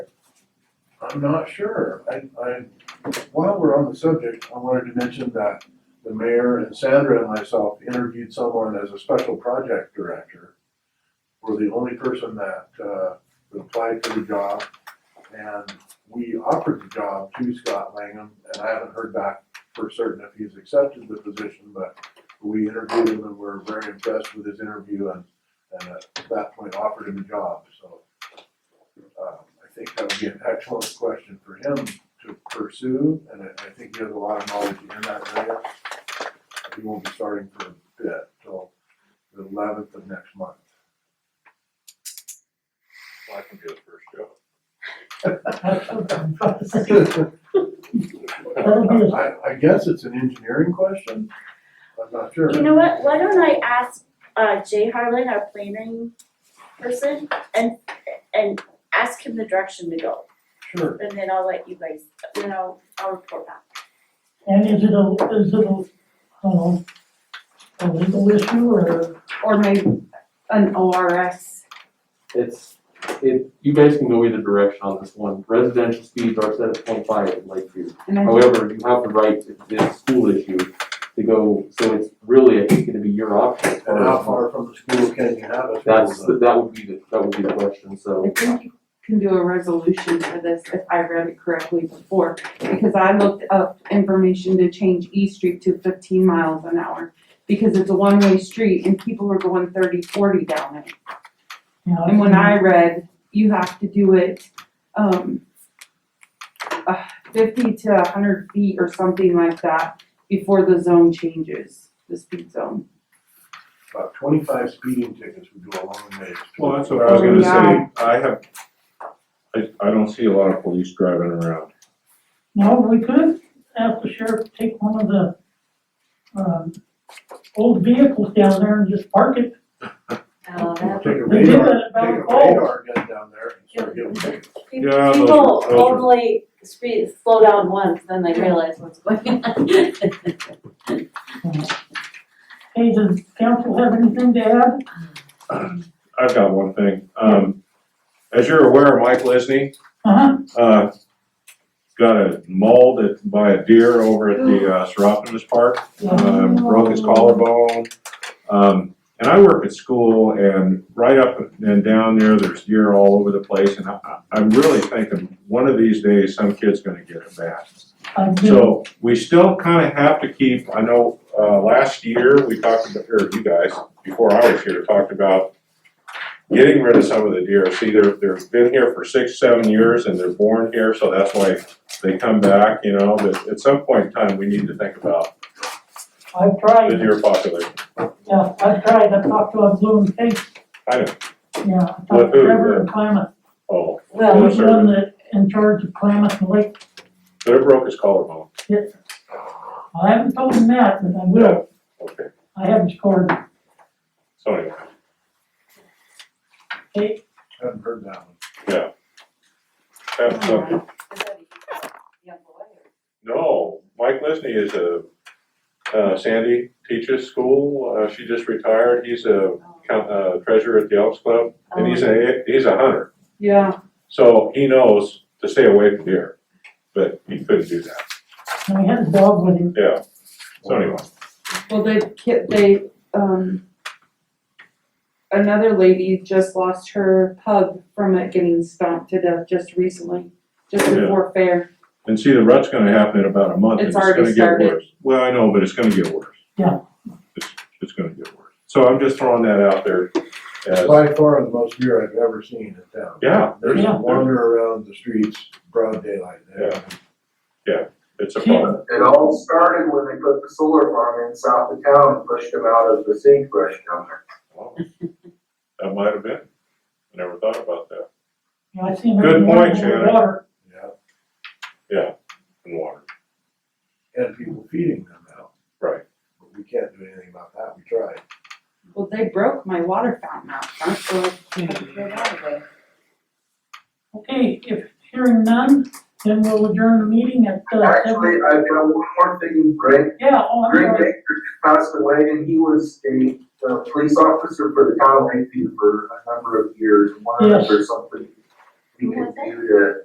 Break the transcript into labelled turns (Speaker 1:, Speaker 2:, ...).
Speaker 1: I'm not sure. I, I, while we're on the subject, I wanted to mention that the mayor and Sandra and myself interviewed someone as a special project director. We're the only person that, uh, applied for the job. And we offered the job to Scott Langham, and I haven't heard back for certain if he's accepted the position, but we interviewed him and we're very impressed with his interview and, and at that point offered him a job, so. Um, I think that would be an excellent question for him to pursue, and I, I think he has a lot of knowledge in that area. He won't be starting for a bit till the eleventh of next month.
Speaker 2: I can be the first job.
Speaker 1: I, I guess it's an engineering question, I'm not sure.
Speaker 3: You know what, why don't I ask uh Jay Harlan, our planning person, and and ask him the direction to go,
Speaker 1: Sure,
Speaker 3: and then I'll let you guys, then I'll I'll report back.
Speaker 4: And is it a, is it a, I don't know, a legal issue or
Speaker 5: or maybe an ORS.
Speaker 6: It's, it, you guys can go either direction on this one. Residential speeds are set at twenty-five in Lakeview.
Speaker 5: And I think
Speaker 6: However, you have the right if this school issue to go, so it's really, I think, gonna be your option. as
Speaker 1: and how
Speaker 6: far as-
Speaker 1: far from the school can you have us?
Speaker 6: That's, that would be the, that would be the question,
Speaker 5: I
Speaker 6: so.
Speaker 5: think you can do a resolution for this if I read it correctly before, because I looked up information to change E Street to fifteen miles an hour. Because it's a one-way street and people were going 30, 40 down it.
Speaker 4: not?
Speaker 5: And when I read, you have to do it, um, uh, fifty to hundred feet or something like that before the zone changes, the speed zone.
Speaker 1: About twenty-five speeding tickets would go a long way.
Speaker 2: Well, that's what I was
Speaker 5: Oh,
Speaker 2: gonna
Speaker 5: yeah.
Speaker 2: say, I have, I, I don't see a lot of police driving around.
Speaker 4: No, we could ask the sheriff to take one of the, um, old vehicles down there and just park it.
Speaker 3: Oh,
Speaker 1: Take a
Speaker 4: They did
Speaker 1: radar,
Speaker 4: that at
Speaker 1: take a
Speaker 4: Valley Falls.
Speaker 1: radar gun down there and start giving tickets.
Speaker 2: Yeah, those are-
Speaker 7: People
Speaker 2: those are-
Speaker 7: only speed, slow down once, then they realize what's going on.
Speaker 4: Hey, does council have anything to add?
Speaker 2: I've got one thing, um, as you're aware, Mike Lisney,
Speaker 4: Uh-huh,
Speaker 2: uh, got mauled at- by a deer over at the, uh, Seropolis Park.
Speaker 4: yeah,
Speaker 2: um,
Speaker 5: Oh.
Speaker 2: broke his collarbone. Um, and I work at school and right up and down there, there's deer all over the place. And I, I- I'm really thinking, one of these days, some kid's gonna get it back.
Speaker 4: I do,
Speaker 2: So we still kind of have to keep, I know, uh, last year, we talked about, or you guys, before I was here, talked about getting rid of some of the deer. See, they're, they've been here for six, seven years and they're born here, so that's why they come back, you know. But at some point in time, we need to think about
Speaker 4: I've
Speaker 2: the
Speaker 4: tried,
Speaker 2: deer population.
Speaker 4: yeah, I've tried, I've talked to a blue and pink,
Speaker 2: I know,
Speaker 4: yeah, I talked to
Speaker 2: With who?
Speaker 4: Trevor and Klamath.
Speaker 2: oh,
Speaker 4: He
Speaker 7: Well,
Speaker 4: was the one that in charge of Klamath and Lake,
Speaker 2: but it broke his collarbone.
Speaker 4: I haven't told him that, but I will,
Speaker 2: Okay,
Speaker 4: I haven't scored,
Speaker 2: so anyway,
Speaker 4: okay,
Speaker 1: Haven't heard that one.
Speaker 2: that's something. No, Mike Lisney is a, uh, Sandy teaches school, uh, she just retired, he's a count- uh, treasurer at the Elks Club, and he's a, he's a hunter.
Speaker 5: Yeah,
Speaker 2: So he knows to stay away from deer, but he couldn't do that,
Speaker 4: and we had a dog with him.
Speaker 2: yeah, so anyway.
Speaker 5: Well, they, ki- they, um, another lady just lost her pug from it getting stomped to death just recently, just
Speaker 2: Yeah.
Speaker 5: before fair.
Speaker 2: And see, the rut's gonna happen in about a month, and
Speaker 5: It's
Speaker 2: it's gonna
Speaker 5: already
Speaker 2: get worse.
Speaker 5: started.
Speaker 2: Well, I know, but it's gonna get worse.
Speaker 4: Yeah.
Speaker 2: It's, it's gonna get worse, so I'm just throwing that out there as,
Speaker 1: By far the most deer I've ever seen in town.
Speaker 2: yeah,
Speaker 1: There's
Speaker 2: there's,
Speaker 4: Yeah.
Speaker 1: wander around the streets, broad daylight there.
Speaker 2: it's a problem.
Speaker 8: It all started when they put the solar farm in south of town and pushed them out of the sagebrush down there.
Speaker 2: Wow. That might have been. I Never thought about that
Speaker 4: Yeah, I seen
Speaker 2: Good
Speaker 4: every one
Speaker 2: point,
Speaker 4: in the
Speaker 2: Shannon.
Speaker 4: water.
Speaker 1: Yeah,
Speaker 2: in water.
Speaker 1: and people feeding them out.
Speaker 2: Right.
Speaker 1: But we can't do anything about that, we tried.
Speaker 5: Well, they broke my water fountain out front, so I had to throw that away.
Speaker 4: Okay, if hearing none, then we'll adjourn the meeting at, uh,
Speaker 8: Actually,
Speaker 4: seven.
Speaker 8: I've got one more thing, Greg,
Speaker 4: Yeah, oh, I'm
Speaker 8: Greg
Speaker 4: sorry.
Speaker 8: Baker just passed away and he was a, uh police officer for the town of Lakeview for a number of years, one
Speaker 4: Yes.
Speaker 8: or something. He
Speaker 3: Who was it?
Speaker 8: continued to